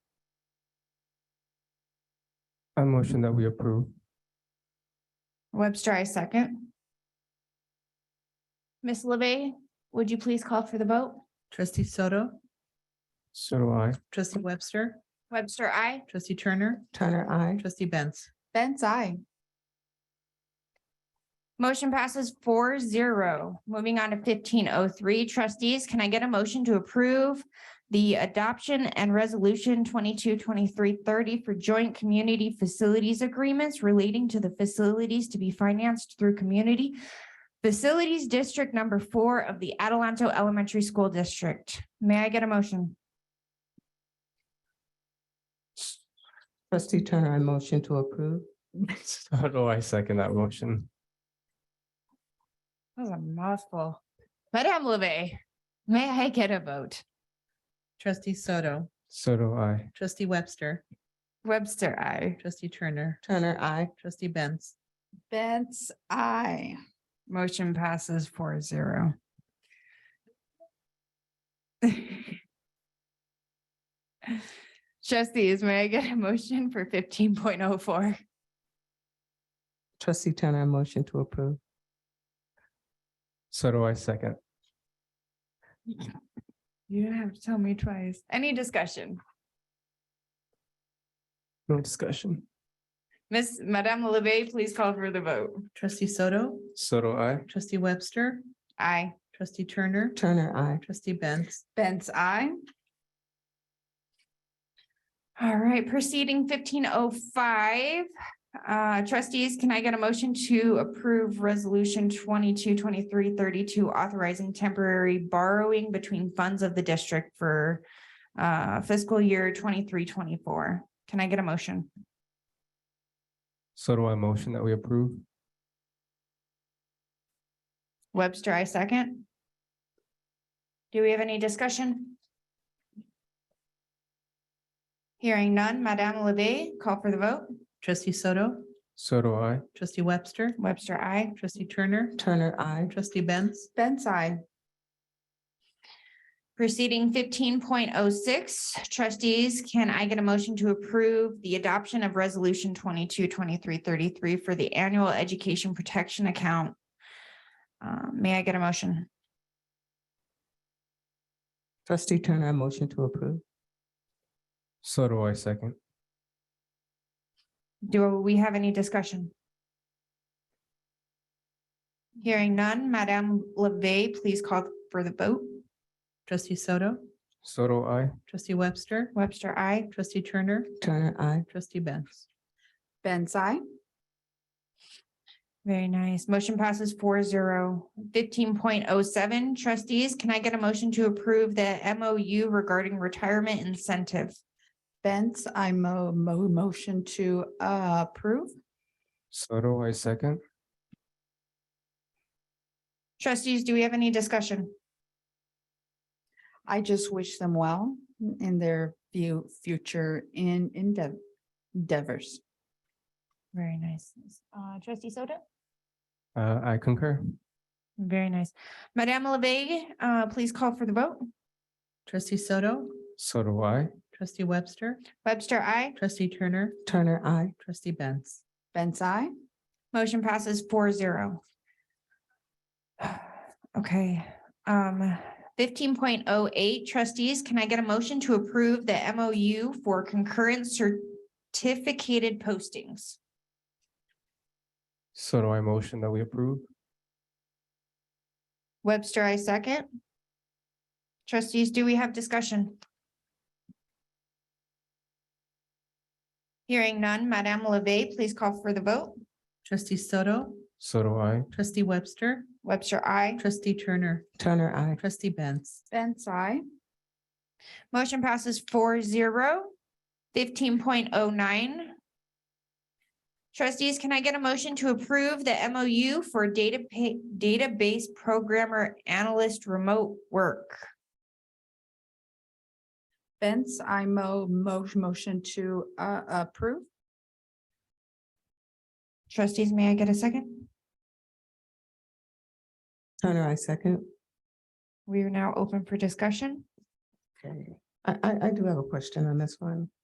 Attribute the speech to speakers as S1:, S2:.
S1: I motion that we approve.
S2: Webster, I second. Ms. LeVey, would you please call for the vote?
S3: Trustee Soto,
S1: So do I.
S3: trustee Webster,
S2: Webster, I.
S3: trustee Turner,
S4: Turner, I.
S3: trustee Benz.
S2: Benz, I. Motion passes four zero. Moving on to fifteen oh three. Trustees, can I get a motion to approve the adoption and resolution twenty-two, twenty-three, thirty for joint community facilities agreements relating to the facilities to be financed through community facilities district number four of the Adelanto Elementary School District? May I get a motion?
S4: Trustee Turner, I motion to approve.
S1: So do I second that motion.
S2: That was a mouthful. Madame LeVey, may I get a vote?
S3: Trustee Soto,
S1: So do I.
S3: trustee Webster,
S2: Webster, I.
S3: trustee Turner,
S4: Turner, I.
S3: trustee Benz.
S2: Betts, I. Motion passes four zero. Trustees, may I get a motion for fifteen point oh four?
S4: Trustee Turner, I motion to approve.
S1: So do I second.
S2: You don't have to tell me twice. Any discussion?
S1: No discussion.
S2: Miss Madame LeVey, please call for the vote.
S3: Trustee Soto,
S1: So do I.
S3: trustee Webster,
S2: Aye.
S3: trustee Turner,
S4: Turner, I.
S3: trustee Benz.
S2: Benz, I. All right, proceeding fifteen oh five. Uh, trustees, can I get a motion to approve resolution twenty-two, twenty-three, thirty-two, authorizing temporary borrowing between funds of the district for uh, fiscal year twenty-three, twenty-four? Can I get a motion?
S1: So do I motion that we approve.
S2: Webster, I second. Do we have any discussion? Hearing none, Madame Levy, call for the vote.
S3: Trustee Soto,
S1: So do I.
S3: trustee Webster,
S2: Webster, I.
S3: trustee Turner,
S4: Turner, I.
S3: trustee Benz.
S2: Benz, I. Proceeding fifteen point oh six, trustees, can I get a motion to approve the adoption of resolution twenty-two, twenty-three, thirty-three for the annual education protection account? Uh, may I get a motion?
S4: Trustee Turner, I motion to approve.
S1: So do I second.
S2: Do we have any discussion? Hearing none, Madame LeVey, please call for the vote.
S3: Trustee Soto,
S1: So do I.
S3: trustee Webster,
S2: Webster, I.
S3: trustee Turner,
S4: Turner, I.
S3: trustee Benz.
S2: Benz, I. Very nice. Motion passes four zero. Fifteen point oh seven, trustees, can I get a motion to approve the MOU regarding retirement incentive?
S5: Benz, I mo- mo- motion to uh, approve.
S1: So do I second.
S2: Trustees, do we have any discussion?
S5: I just wish them well in their view, future in endeav- endeavors.
S2: Very nice. Uh, trustee Soto?
S1: Uh, I concur.
S2: Very nice. Madame LeVey, uh, please call for the vote.
S3: Trustee Soto,
S1: So do I.
S3: trustee Webster,
S2: Webster, I.
S3: trustee Turner,
S4: Turner, I.
S3: trustee Benz.
S5: Benz, I.
S2: Motion passes four zero. Okay, um, fifteen point oh eight trustees, can I get a motion to approve the MOU for concurrent certificated postings?
S1: So do I motion that we approve.
S2: Webster, I second. Trustees, do we have discussion? Hearing none, Madame LeVey, please call for the vote.
S3: Trustee Soto,
S1: So do I.
S3: trustee Webster,
S2: Webster, I.
S3: trustee Turner,
S4: Turner, I.
S3: trustee Benz.
S5: Benz, I.
S2: Motion passes four zero. Fifteen point oh nine. Trustees, can I get a motion to approve the MOU for data pa- database programmer analyst remote work?
S5: Benz, I mo- mo- motion to uh, approve.
S2: Trustees, may I get a second?
S4: Turner, I second.
S2: We are now open for discussion.
S4: Okay. I, I, I do have a question on this one.